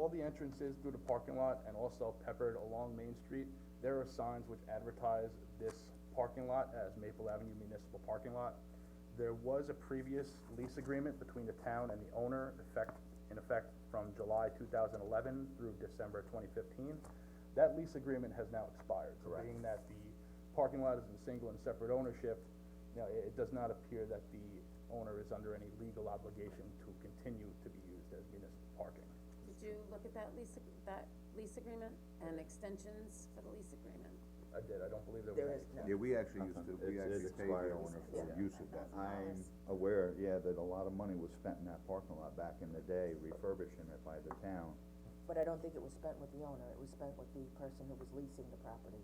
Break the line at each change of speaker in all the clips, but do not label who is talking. all the entrances through the parking lot and also peppered along Main Street, there are signs which advertise this parking lot as Maple Avenue Municipal Parking Lot. There was a previous lease agreement between the town and the owner, effect, in effect from July two thousand eleven through December twenty fifteen. That lease agreement has now expired, so
Correct.
being that the parking lot is in single and separate ownership, you know, it, it does not appear that the owner is under any legal obligation to continue to be used as municipal parking.
Did you look at that lease, ag- that lease agreement and extensions for the lease agreement?
I did, I don't believe there
There
was
is
any.
no.
Yeah, we actually used to,
It's-
we actually
it's
paid the
expired.
owner for the
Yeah.
use of that.
I'm aware, yeah, that a lot of money was spent in that parking lot back in the day refurbishing it by the town.
But I don't think it was spent with the owner, it was spent with the person who was leasing the property.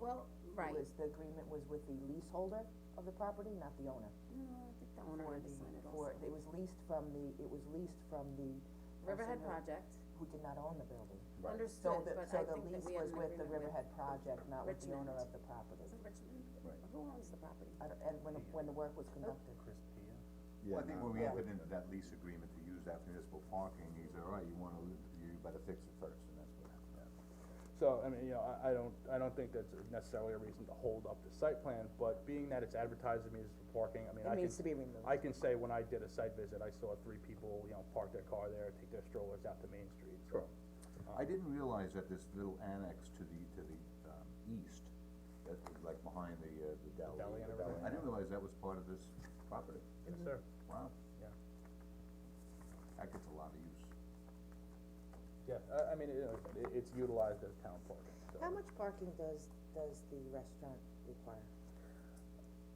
Well, right,
It was, the agreement was with the leaseholder of the property, not the owner.
no, I think the owner
For
had to
the-
sign it
for-
also.
it was leased from the, it was leased from the.
Riverhead
person who-
Project,
Who did not own the building. So
Right.
understood,
the,
but
so
I
the
think that
lease
we had
was
an
with
agreement
the
with.
Riverhead Project, not with the owner
Richmond.
of the property.
Is it Richmond?
Right.
Who owns the property?
I don't- And when, when the work was conducted.
Chris Pia?
Well, I think when we
Yeah.
entered into that lease agreement to use that for municipal parking, he said, all right, you wanna, you better fix it first, and that's what happened.
So, I mean, you know, I, I don't, I don't think that's necessarily a reason to hold up the site plan, but being that it's advertised as municipal parking, I mean,
It
I can.
needs to be removed.
I can say when I did a site visit, I saw three people, you know, park their car there, take their strollers out to Main Street, so.
I didn't realize that this little annex to the, to the, um, east, that was like behind the, uh, the deli.
deli and
the
everything.
I didn't realize that was part of this property,
Yes, sir.
wow,
Mm-hmm. Yeah.
that gets a lot of use.
Yeah, I, I mean, you know, it, it's utilized as town parking, so.
much parking does, does the restaurant require?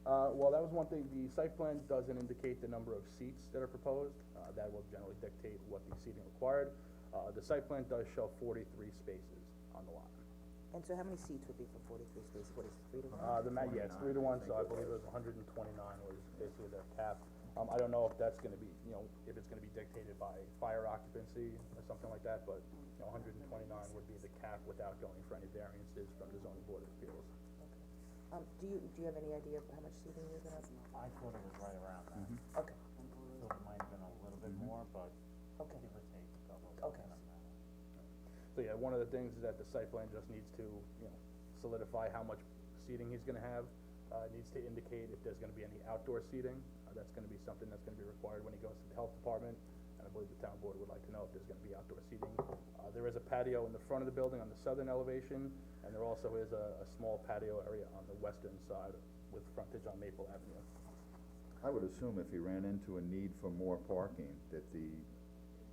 Uh, well, that was one thing, the site plan doesn't indicate the number of seats that are proposed, uh, that will generally dictate what the seating required. Uh, the site plan does show forty-three spaces on the lot.
And so how many seats would be for forty-three spaces, what is, three to one?
Uh, the ma- yeah, it's three to one, so I believe it was hundred and twenty-nine was basically their cap. Um, I don't know if that's gonna be, you know, if it's gonna be dictated by fire occupancy or something like that, but, you know, hundred and twenty-nine would be the cap without going for any variances from the zoning board of appeals.
Um, do you, do you have any idea of how much seating you're gonna have?
I thought it was right around that,
Mm-hmm.
Okay,
so it might have been a little bit more, but
okay,
give or take a couple.
Okay.
So, yeah, one of the things is that the site plan just needs to, you know, solidify how much seating he's gonna have. Uh, it needs to indicate if there's gonna be any outdoor seating, uh, that's gonna be something that's gonna be required when he goes to the health department. And I believe the town board would like to know if there's gonna be outdoor seating. Uh, there is a patio in the front of the building on the southern elevation, and there also is a, a small patio area on the western side with frontage on Maple Avenue.
I would assume if he ran into a need for more parking, that the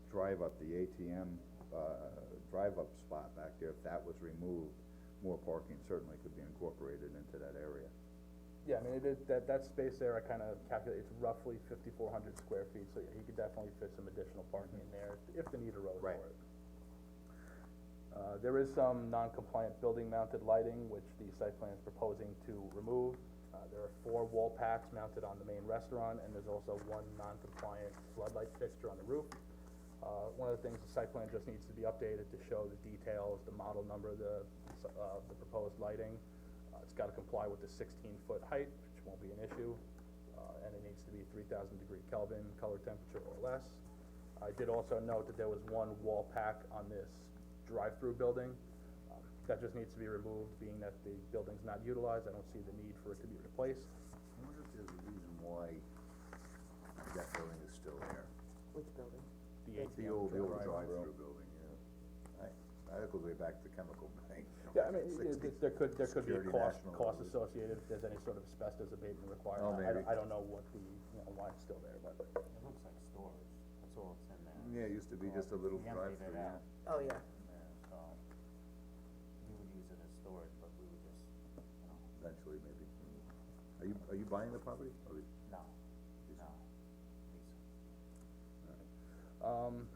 drive up, the ATM, uh, drive up spot back there, if that was removed, more parking certainly could be incorporated into that area.
Yeah, I mean, it is, that, that space there, I kinda calculate, it's roughly fifty-four hundred square feet, so yeah, he could definitely fit some additional parking in there, if the need arose for
Right.
it. Uh, there is some non-compliant building mounted lighting, which the site plan is proposing to remove. Uh, there are four wall packs mounted on the main restaurant, and there's also one non-compliant floodlight fixture on the roof. Uh, one of the things, the site plan just needs to be updated to show the details, the model number of the, uh, the proposed lighting. Uh, it's gotta comply with the sixteen-foot height, which won't be an issue, uh, and it needs to be three thousand degree Kelvin, color temperature or less. I did also note that there was one wall pack on this drive-through building. Um, That just needs to be removed, being that the building's not utilized, I don't see the need for it to be replaced.
I wonder if there's a reason why that building is still there.
which building?
The
The
ATM.
old, the old
drive-through.
drive-through building, yeah. I, I go way back to chemical bank.
Yeah, I mean, it- it- there could, there could be a
Security
cost,
National
cost
Building.
associated if there's any sort of asbestos abatement required.
Oh,
I- I
maybe.
don't, I don't know what the, you know, why it's still there, but.
It looks like storage, that's all it's in there.
Yeah, it used to be just a little
We emptied
drive-through,
it
yeah.
Oh,
out
yeah.
in there, so we would use it as storage, but we would just, you know,
eventually maybe. Are you, are you buying the property? Or you-
no, no, lease it.
Um,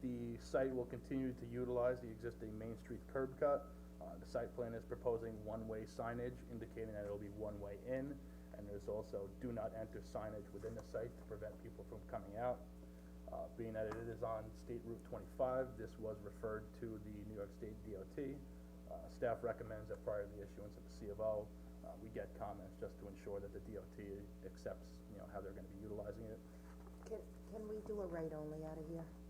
the site will continue to utilize the existing Main Street curb cut. Uh, the site plan is proposing one-way signage indicating that it'll be one-way in, and there's also do not enter signage within the site to prevent people from coming out. Uh, being that it is on State Route twenty-five, this was referred to the New York State DOT. Uh, staff recommends that prior to the issuance of the C of O, uh, we get comments just to ensure that the DOT accepts, you know, how they're gonna be utilizing it.
Can, can we do a right only out of here?